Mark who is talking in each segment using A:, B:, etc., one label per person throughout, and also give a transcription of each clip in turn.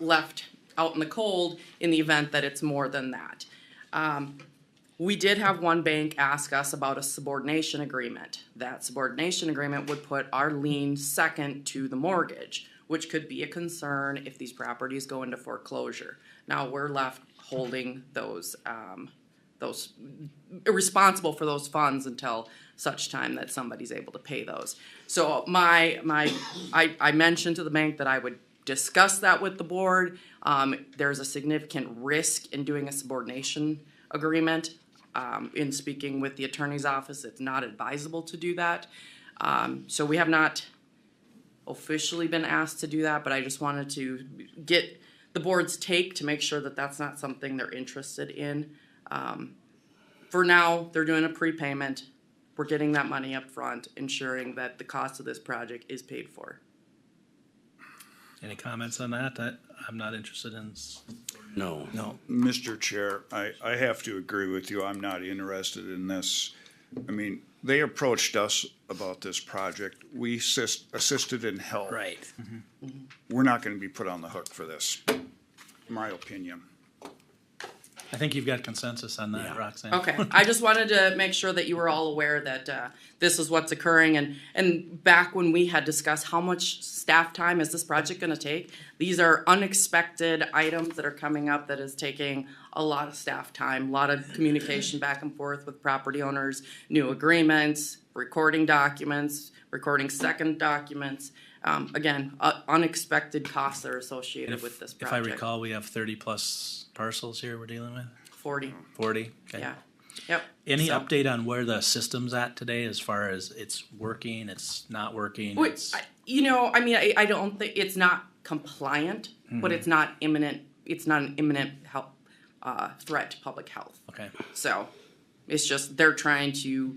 A: left out in the cold in the event that it's more than that. Um, we did have one bank ask us about a subordination agreement. That subordination agreement would put our lien second to the mortgage, which could be a concern if these properties go into foreclosure. Now, we're left holding those, um, those, responsible for those funds until such time that somebody's able to pay those. So my, my, I, I mentioned to the bank that I would discuss that with the board. Um, there's a significant risk in doing a subordination agreement. Um, in speaking with the attorney's office, it's not advisable to do that. Um, so we have not officially been asked to do that, but I just wanted to get the board's take to make sure that that's not something they're interested in for now, they're doing a prepayment. We're getting that money up front, ensuring that the cost of this project is paid for.
B: Any comments on that? I, I'm not interested in, s-
C: No.
B: no.
D: Mr. Chair, I, I have to agree with you. I'm not interested in this. I mean, they approached us about this project. We assist, assisted in help. Mm-hmm.
B: Right.
D: We're not gonna be put on the hook for this, my opinion.
B: I think you've got consensus on that,
C: Yeah.
B: Roxanne.
A: Okay, I just wanted to make sure that you were all aware that uh, this is what's occurring. And, and back when we had discussed how much staff time is this project gonna take, these are unexpected items that are coming up that is taking a lot of staff time, a lot of communication back and forth with property owners, new agreements, recording documents, recording second documents. Um, Again, uh, unexpected costs that are associated with this
B: If I
A: project.
B: recall, we have thirty-plus parcels here we're dealing with,
A: Forty,
B: forty? Okay.
A: yeah, yep.
B: Any
A: So-
B: update on where the system's at today as far as it's working, it's not working?
A: Wait,
B: it's-
A: I, uh, you know, I mean, I, I don't think it's not compliant,
B: Mm-hmm.
A: but it's not imminent. It's not an imminent health uh, threat to public health.
B: Okay,
A: So it's just they're trying to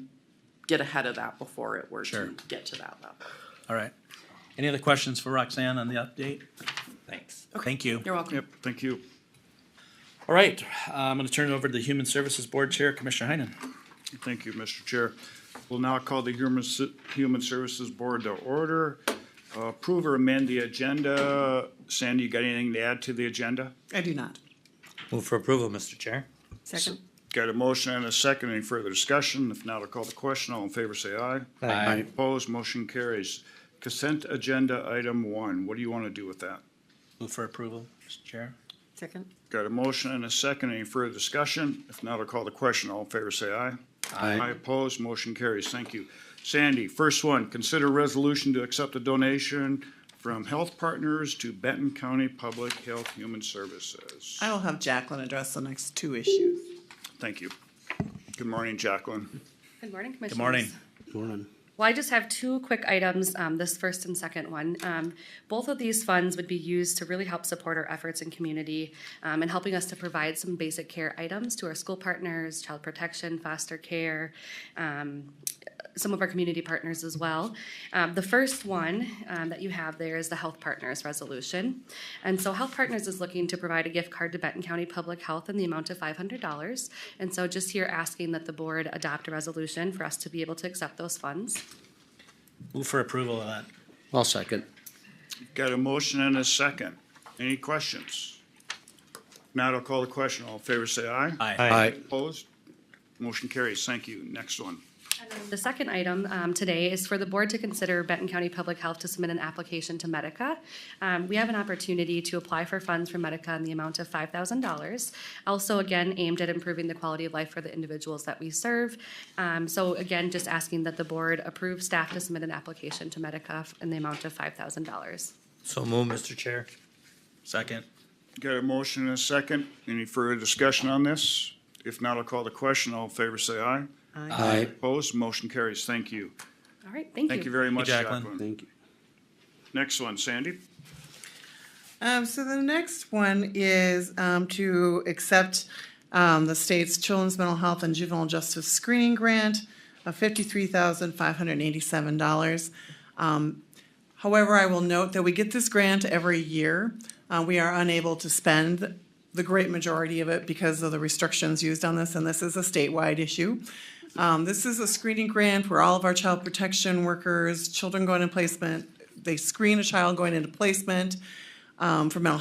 A: get ahead of that before it were
B: Sure.
A: to get to that level.
B: all right. Any other questions for Roxanne on the update? Thanks. Thank you.
A: You're welcome.
D: Yep, thank you.
B: All right, uh, I'm gonna turn it over to the Human Services Board Chair, Commissioner Heinen.
D: Thank you, Mr. Chair. We'll now call the Human, S- Human Services Board to order. Uh, Approve or amend the agenda. Sandy, you got anything to add to the agenda?
E: I do not.
C: Move for approval, Mr. Chair.
E: Second.
D: Got a motion and a second. Any further discussion? If not, I'll call the question. All in favor, say aye.
C: Aye.
D: Opposed, motion carries. Consent agenda item one, what do you want to do with that?
B: Move for approval, Mr. Chair.
E: Second.
D: Got a motion and a second, any further discussion? If not, I'll call the question, all in favor say aye. Aye opposed, motion carries, thank you. Sandy, first one, consider resolution to accept a donation from Health Partners to Benton County Public Health Human Services.
E: I will have Jacqueline address the next two issues.
D: Thank you. Good morning, Jacqueline.
F: Good morning, Commissioners.
B: morning.
F: Well, I just have two quick items, um, this first and second one. Um, both of these funds would be used to really help support our efforts in community um, and helping us to provide some basic care items to our school partners, child protection, foster care, um, some of our community partners as well. Um, the first one um, that you have there is the Health Partners resolution. And so Health Partners is looking to provide a gift card to Benton County Public Health in the amount of $500. And so just here asking that the board adopt a resolution for us to be able to accept those funds.
B: Move for approval of that.
C: I'll second.
D: Got a motion and a second, any questions? Now I'll call the question, all in favor say aye.
B: Aye.
D: Opposed? Motion carries. Thank you. Next one.
F: The second item um, today is for the board to consider Benton County Public Health to submit an application to Medica. Um, We have an opportunity to apply for funds from Medica in the amount of $5,000. Also, again, aimed at improving the quality of life for the individuals that we serve. Um, So again, just asking that the board approve staff to submit an application to Medica in the amount of $5,000.
C: So move, Mr. Chair.
B: Second.
D: Got a motion and a second. Any further discussion on this? If not, I'll call the question. All in favor, say aye.
C: Aye.
D: Opposed? Motion carries. Thank you.
F: All right, thank you.
D: Thank you very much,
B: Jacqueline.
D: Jacqueline.
C: Thank you.
D: Next one, Sandy.
E: Um, so the next one is, um, to accept, um, the state's Children's Mental Health and Juvenile Justice Screening Grant of fifty-three thousand five hundred and eighty-seven dollars. Um, However, I will note that we get this grant every year. Uh, we are unable to spend the great majority of it because of the restrictions used on this, and this is a statewide issue. Um, this is a screening grant where all of our child protection workers, children going in placement, they screen a child going into placement um, for mental